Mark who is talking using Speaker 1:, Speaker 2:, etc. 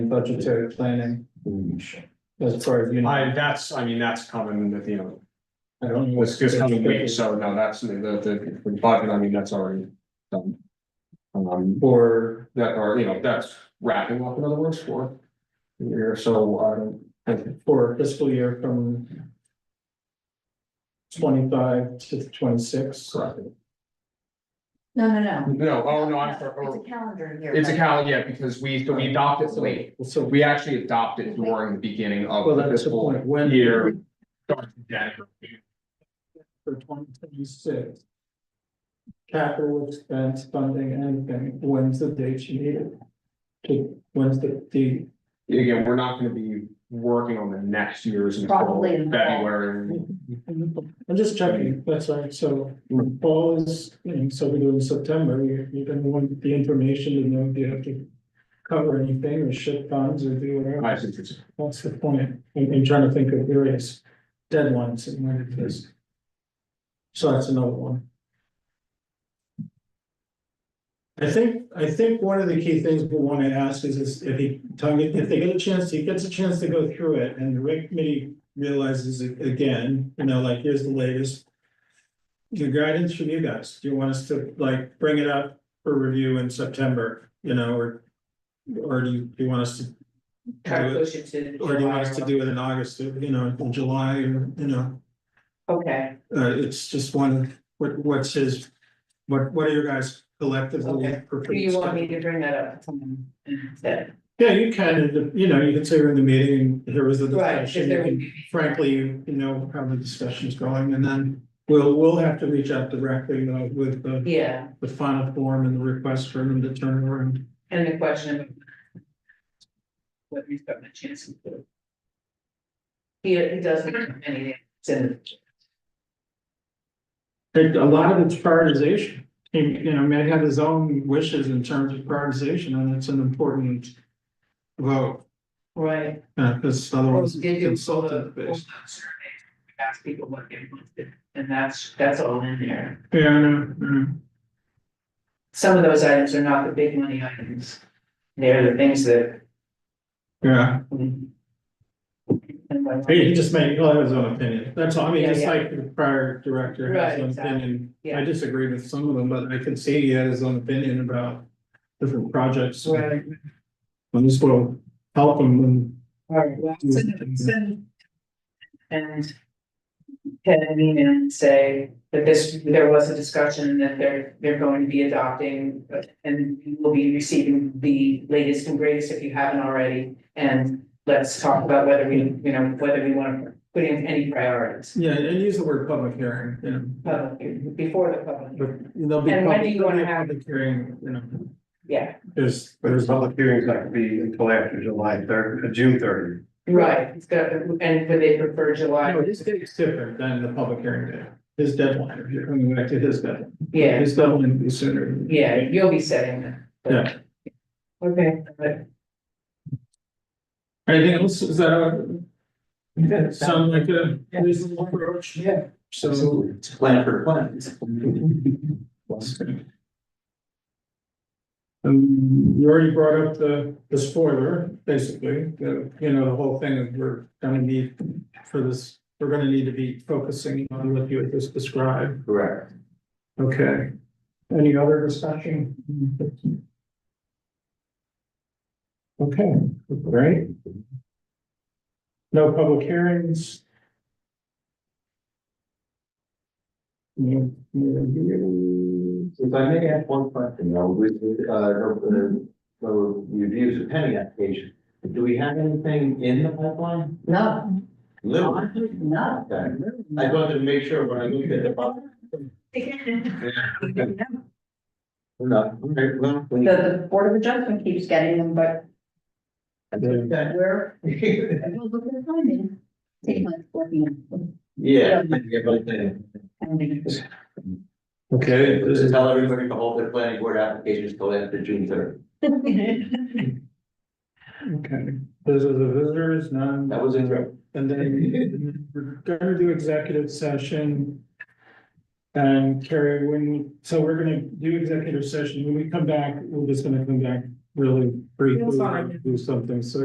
Speaker 1: budgetary planning as far as you know.
Speaker 2: I, that's, I mean, that's coming at the end,
Speaker 1: I don't know
Speaker 2: it's just coming week, so no, that's the, the, the budget, I mean, that's already done. Um,
Speaker 1: Or,
Speaker 2: that are, you know, that's wrapping up, in other words, for. the year. so, um, and
Speaker 1: for fiscal year from twenty-five to twenty-six.
Speaker 2: correct.
Speaker 3: No, no, no.
Speaker 2: No, oh, no, I'm sorry,
Speaker 3: It's
Speaker 2: oh,
Speaker 3: a calendar year.
Speaker 2: it's a
Speaker 3: right?
Speaker 2: cal, yeah, because we, so we adopted, so wait,
Speaker 1: So we,
Speaker 2: we actually adopted during the beginning
Speaker 1: well,
Speaker 2: of the
Speaker 1: that's the
Speaker 2: fiscal
Speaker 1: point, when.
Speaker 2: year. starts in January.
Speaker 1: For twenty twenty-six. Capital expense funding, anything, when's the date you need it? To, when's the, the,
Speaker 2: Again, we're not gonna be working on the next year's until
Speaker 3: Probably in the fall.
Speaker 2: February.
Speaker 1: I'm just checking, that's right, so fall is, you know, so we do in September, you, you're gonna want the information to know if you have to. Cover anything or ship funds or do whatever.
Speaker 2: I think it's-
Speaker 1: That's the point, I'm, I'm trying to think of various deadlines and when it is. So that's another one. I think, I think one of the key things we wanna ask is, is if he, Tony, if they get a chance, he gets a chance to go through it, and the rec committee realizes it again, you know, like, here's the latest. Your guidance from you guys, do you want us to, like, bring it up for review in September, you know, or? Or do you, do you want us to
Speaker 4: Try to push it to.
Speaker 1: or do you want us to
Speaker 4: July.
Speaker 1: do it in August, or, you know, in July, or, you know,
Speaker 4: Okay,
Speaker 1: uh, it's just one, what, what's his? What, what are your guys collectively?
Speaker 4: Okay. do you want me to bring that up to someone instead?
Speaker 1: Yeah, you can, you know, you can say you're in the meeting, and here was the
Speaker 4: Right, if
Speaker 1: discussion, you
Speaker 4: there would
Speaker 1: can-
Speaker 4: be.
Speaker 1: frankly, you know, how the discussion's going, and then. We'll, we'll have to reach out directly, though, with the,
Speaker 4: Yeah,
Speaker 1: the final form and the request for him to turn around.
Speaker 4: and the question of. Whether he's gotten a chance. to do it. He, he doesn't have anything, that's in,
Speaker 1: And a lot of it's prioritization, and, you know, Matt had his own wishes in terms of prioritization, and it's an important. Vote,
Speaker 4: right,
Speaker 1: uh, because
Speaker 4: Well,
Speaker 1: otherwise
Speaker 4: did you
Speaker 1: it's
Speaker 4: pull the,
Speaker 1: consultant
Speaker 4: pull the
Speaker 1: based.
Speaker 4: survey? Ask people what they wanted, and that's, that's all in there,
Speaker 1: Yeah, I know, I know.
Speaker 4: some of those items are not the big money items. They're the things that.
Speaker 1: yeah,
Speaker 4: and like-
Speaker 1: he he just made, well, that was his own opinion, that's all, I mean,
Speaker 4: Yeah,
Speaker 1: just
Speaker 4: yeah.
Speaker 1: like the prior director
Speaker 4: Right,
Speaker 1: has his own
Speaker 4: exactly.
Speaker 1: opinion. I
Speaker 4: Yeah.
Speaker 1: disagree with some of them, but I can see he had his own opinion about different projects.
Speaker 4: Right.
Speaker 1: And this will help him and
Speaker 4: Alright, well, send, send. And. Head an email and say that this, there was a discussion that they're, they're going to be adopting, but- and you will be receiving the latest and greatest if you haven't already. And let's talk about whether we, you know, whether we want to put in any priorities.
Speaker 1: yeah, and use the word public hearing, you know.
Speaker 4: uh, before the public,
Speaker 1: But there'll be.
Speaker 4: And when are you
Speaker 1: public-
Speaker 4: gonna have-
Speaker 1: Public hearing, you know,
Speaker 4: yeah,
Speaker 1: there's,
Speaker 5: But
Speaker 1: there's,
Speaker 5: his public hearing's not gonna be until after July third, uh, June thirty.
Speaker 4: right, it's got, and would they prefer July,
Speaker 1: no, his date's different than the public hearing day. His deadline, if you're coming back to his deadline,
Speaker 4: yeah,
Speaker 1: his deadline would be sooner.
Speaker 4: yeah, you'll be setting that.
Speaker 1: Yeah.
Speaker 4: Okay, but
Speaker 1: Anything else, is that? a- Sound like a reasonable approach?
Speaker 5: Yeah.
Speaker 1: So.
Speaker 5: Plan for plan.
Speaker 1: Um, you already brought up the, the spoiler, basically, the, you know, the whole thing of we're gonna need for this, we're gonna need to be focusing on what you had just described.
Speaker 5: Correct.
Speaker 1: Okay. Any other discussion? Okay, great. No public hearings. No, no,
Speaker 5: If I may add one question, though, with, uh, the, the reviews of pending application, do we have anything in the pipeline?
Speaker 3: No,
Speaker 5: Little.
Speaker 3: no.
Speaker 5: Okay. I wanted to make sure when I looked at the. bu-
Speaker 3: The,
Speaker 5: No, okay, well. we-
Speaker 3: the Board of Adjustment keeps getting them, but we're,
Speaker 5: Yeah,
Speaker 3: we'll look at the timing. Take my fourteen.
Speaker 5: yeah, but then,
Speaker 1: Okay,
Speaker 5: just tell everybody to hold their planning board applications till after June third.
Speaker 1: Okay, those are the visitors, none.
Speaker 5: That was it.
Speaker 1: And then we're gonna do executive session. And Carrie, when, so we're gonna do executive session, when we come back, we're just gonna come back really briefly
Speaker 4: fine.
Speaker 1: do something, so